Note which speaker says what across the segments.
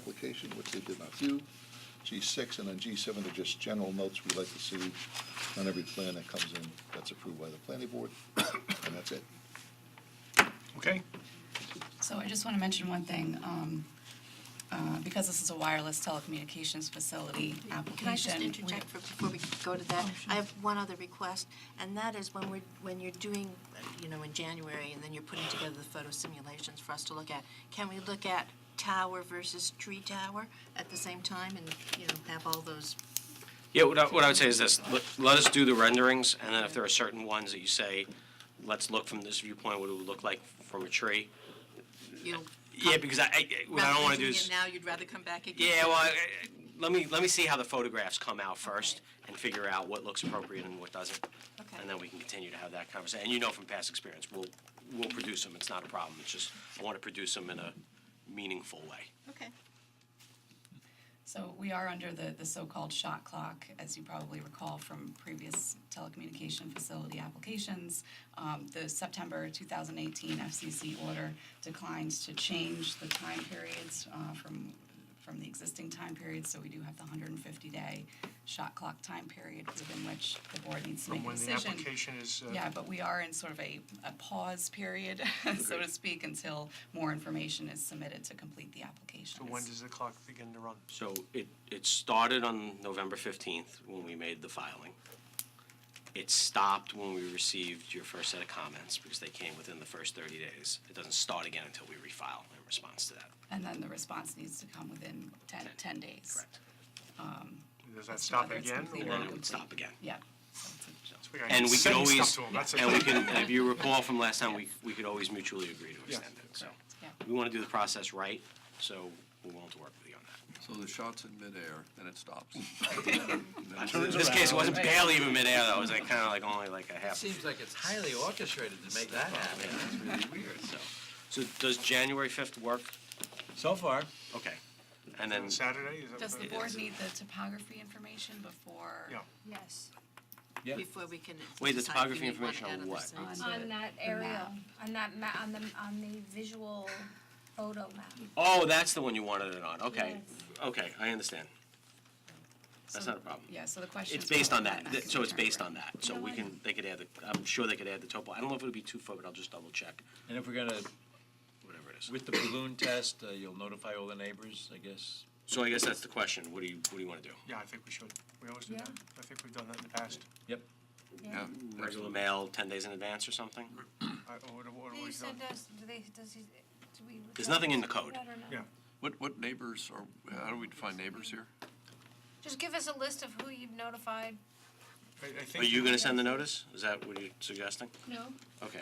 Speaker 1: application, which they did not do. G six, and then G seven are just general notes we'd like to see on every plan that comes in that's approved by the planning board, and that's it.
Speaker 2: Okay,
Speaker 3: So I just want to mention one thing, um, uh, because this is a wireless telecommunications facility application.
Speaker 4: Can I just
Speaker 3: we-
Speaker 4: interject for, before we go to that? I have one other request, and that is when we're, when you're doing, uh, you know, in January, and then you're putting together the photo simulations for us to look at, can we look at tower versus tree tower at the same time and, you know, have all those,
Speaker 5: Yeah, what I, what I would say is this, let, let us do the renderings, and then if there are certain ones that you say, let's look from this viewpoint, what it would look like from a tree.
Speaker 4: you know?
Speaker 5: Yeah, because I, I, what I don't
Speaker 4: rather
Speaker 5: wanna do
Speaker 4: than doing it
Speaker 5: is,
Speaker 4: Now, you'd rather come back again?
Speaker 5: yeah, well, I- I- let me, let me see how the photographs come out first, and figure out what looks appropriate and what doesn't.
Speaker 4: Okay.
Speaker 5: And then we can continue to have that conversation, and you know from past experience, we'll, we'll produce them, it's not a problem, it's just, I wanna produce them in a meaningful way.
Speaker 4: Okay.
Speaker 3: So we are under the, the so-called shot clock, as you probably recall from previous telecommunication facility applications. Um, the September 2018 FCC order declines to change the time periods uh, from, from the existing time periods. So we do have the 150-day shot clock time period within which the board needs to make
Speaker 2: from
Speaker 3: a
Speaker 2: when the
Speaker 3: decision.
Speaker 2: application is, uh,
Speaker 3: Yeah, but we are in sort of a, a pause period, so to speak, until more information is submitted to complete the application.
Speaker 2: so when does the clock begin to run?
Speaker 5: So it, it started on November 15th when we made the filing. It stopped when we received your first set of comments because they came within the first 30 days. It doesn't start again until we refile in response to that.
Speaker 3: And then the response needs to come within 10, 10 days.
Speaker 5: Correct.
Speaker 2: Does that
Speaker 3: That's
Speaker 2: stop
Speaker 3: whether it's
Speaker 2: again?
Speaker 3: complete
Speaker 2: or-
Speaker 3: or
Speaker 5: And it would stop again.
Speaker 3: Yeah. So it's a-
Speaker 2: So gotta
Speaker 5: And we could
Speaker 2: send stuff
Speaker 5: always,
Speaker 2: to 'em, that's
Speaker 5: and we
Speaker 2: it.
Speaker 5: can, if you recall from last time, we, we could always mutually agree to extend it. So
Speaker 3: Yeah.
Speaker 5: we want to do the process right, so we're willing to work with you on that.
Speaker 6: So the shot's in midair, then it stops.
Speaker 5: In this case, it wasn't barely even midair though. It was like kind of like only like a half.
Speaker 7: Seems like it's highly orchestrated to make that happen. It's really weird.
Speaker 5: So, so does January 5th work?
Speaker 7: So far,
Speaker 5: Okay. And then,
Speaker 2: Saturday, is that?
Speaker 3: Does the
Speaker 2: what-
Speaker 3: board need the topography information before?
Speaker 2: Yeah.
Speaker 8: Yes,
Speaker 7: yeah.
Speaker 4: Before we can.
Speaker 5: Wait, the
Speaker 4: decide if
Speaker 5: topography
Speaker 4: we want it
Speaker 5: information on
Speaker 4: out of the
Speaker 5: what?
Speaker 4: site.
Speaker 8: on that area,
Speaker 3: map.
Speaker 8: on that ma, on the, on the visual photo map.
Speaker 5: oh, that's the one you wanted it on, okay. Okay, I understand. That's
Speaker 3: So-
Speaker 5: not a problem.
Speaker 3: Yeah, so the question is.
Speaker 5: It's based on
Speaker 3: whether
Speaker 5: that, Th- so it's
Speaker 3: can be
Speaker 5: based
Speaker 3: turned
Speaker 5: on that. So we can, they could add the, I'm sure they could add the topo. I don't know if it'll be two foot, but I'll just double check,
Speaker 7: And if we're gonna,
Speaker 5: whatever it is.
Speaker 7: with the balloon test, uh, you'll notify all the neighbors, I guess?
Speaker 5: So I guess that's the question. What do you, what do you want to do?
Speaker 2: Yeah, I think we should. We always do
Speaker 8: Yeah.
Speaker 2: that. I think we've done that in the past.
Speaker 7: Yep.
Speaker 6: Yeah,
Speaker 5: Regular mail, 10 days in advance or something?
Speaker 2: I- oh, What, what
Speaker 8: Do
Speaker 2: have we
Speaker 8: you
Speaker 2: done?
Speaker 8: send us, do they, does he, do we?
Speaker 5: There's nothing in the code.
Speaker 8: I don't know.
Speaker 2: Yeah.
Speaker 6: What, what neighbors are, how do we define neighbors here?
Speaker 8: Just give us a list of who you've notified.
Speaker 2: I, I
Speaker 5: Are
Speaker 2: think.
Speaker 5: you going to send the notice? Is that what you're suggesting?
Speaker 8: No.
Speaker 5: Okay.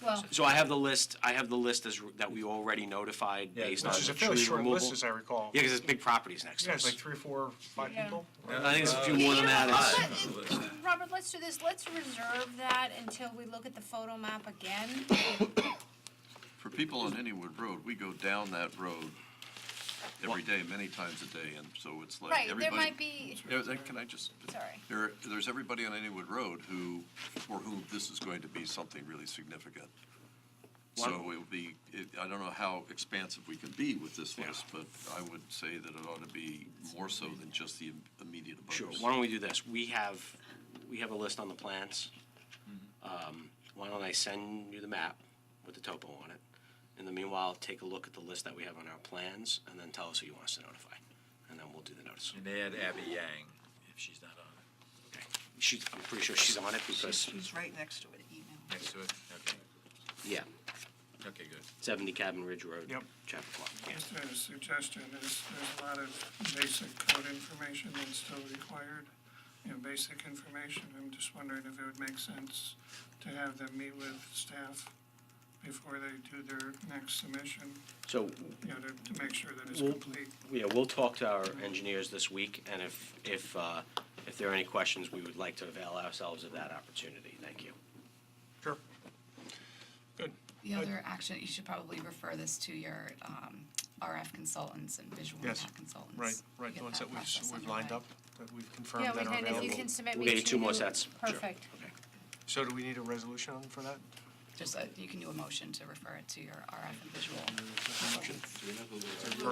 Speaker 8: Well,
Speaker 5: So I have the list, I have the list as, re- that we already notified
Speaker 7: Yeah,
Speaker 5: based on
Speaker 2: Which is
Speaker 5: the
Speaker 2: a fairly
Speaker 5: tree
Speaker 2: short
Speaker 5: removal.
Speaker 2: list, as I recall.
Speaker 5: Yeah, because it's big properties next to
Speaker 2: Yeah,
Speaker 5: us.
Speaker 2: it's like Uh, three, four, five
Speaker 8: Yeah.
Speaker 2: people.
Speaker 5: I think it's a few
Speaker 7: Uh,
Speaker 5: more than that. It's-
Speaker 8: Robert, let's do this, let's reserve that until we look at the photo map again.
Speaker 6: For people on Hennywood Road, we go down that road every day, many times a day, and so it's like
Speaker 8: Right,
Speaker 6: everybody.
Speaker 8: there might be,
Speaker 6: Yeah, then Can I just?
Speaker 8: Sorry.
Speaker 6: There, there's everybody on Anywood Road who, for whom this is going to be something really significant. So it
Speaker 5: One-
Speaker 6: will be, it- I don't know how expansive we can be with this
Speaker 5: Yeah.
Speaker 6: list, but I would say that it ought to be more so than just the im- immediate abutters.
Speaker 5: Sure, why don't we do this? We have, we have a list on the plans. Um, Why don't I send you the map with the topo on it? In the meanwhile, take a look at the list that we have on our plans, and then tell us who you want us to notify. And then we'll do the notice.
Speaker 7: And add Abby Yang, if she's not on
Speaker 5: Okay. She, I'm pretty sure she's on it because,
Speaker 4: She's right next to it, email.
Speaker 7: it. Next to it, okay,
Speaker 5: yeah,
Speaker 7: okay, good.
Speaker 5: 70 Cabin Ridge Road.
Speaker 2: Yep.
Speaker 5: Chappaqua. Yeah.
Speaker 9: Just a suggestion is, there's a lot of basic code information that's still required, you know, basic information. I'm just wondering if it would make sense to have them meet with staff before they do their next submission,
Speaker 5: So
Speaker 9: you know, to, to make sure that it's
Speaker 5: Well-
Speaker 9: complete.
Speaker 5: Yeah, we'll talk to our engineers this week, and if, if, uh, if there are any questions, we would like to avail ourselves of that opportunity. Thank you.
Speaker 2: Sure. Good.
Speaker 3: The other action, you should probably refer this to your um, RF consultants and visual
Speaker 2: Yes,
Speaker 3: impact consultants.
Speaker 2: Right, right,
Speaker 3: to
Speaker 2: the
Speaker 3: get
Speaker 2: ones
Speaker 3: that
Speaker 2: that we've, s-
Speaker 3: process
Speaker 2: we've lined up,
Speaker 3: underway.
Speaker 2: that we've confirmed
Speaker 8: Yeah,
Speaker 2: that
Speaker 8: we
Speaker 2: are
Speaker 8: can, if
Speaker 2: available.
Speaker 8: you can submit
Speaker 5: We'll
Speaker 8: me
Speaker 5: get
Speaker 8: to.
Speaker 5: you two more sets. Sure.
Speaker 8: Perfect.
Speaker 5: Okay.
Speaker 2: So do we need a resolution for that?
Speaker 3: Just, uh, you can do a motion to refer it to your RF and visual
Speaker 2: Motion.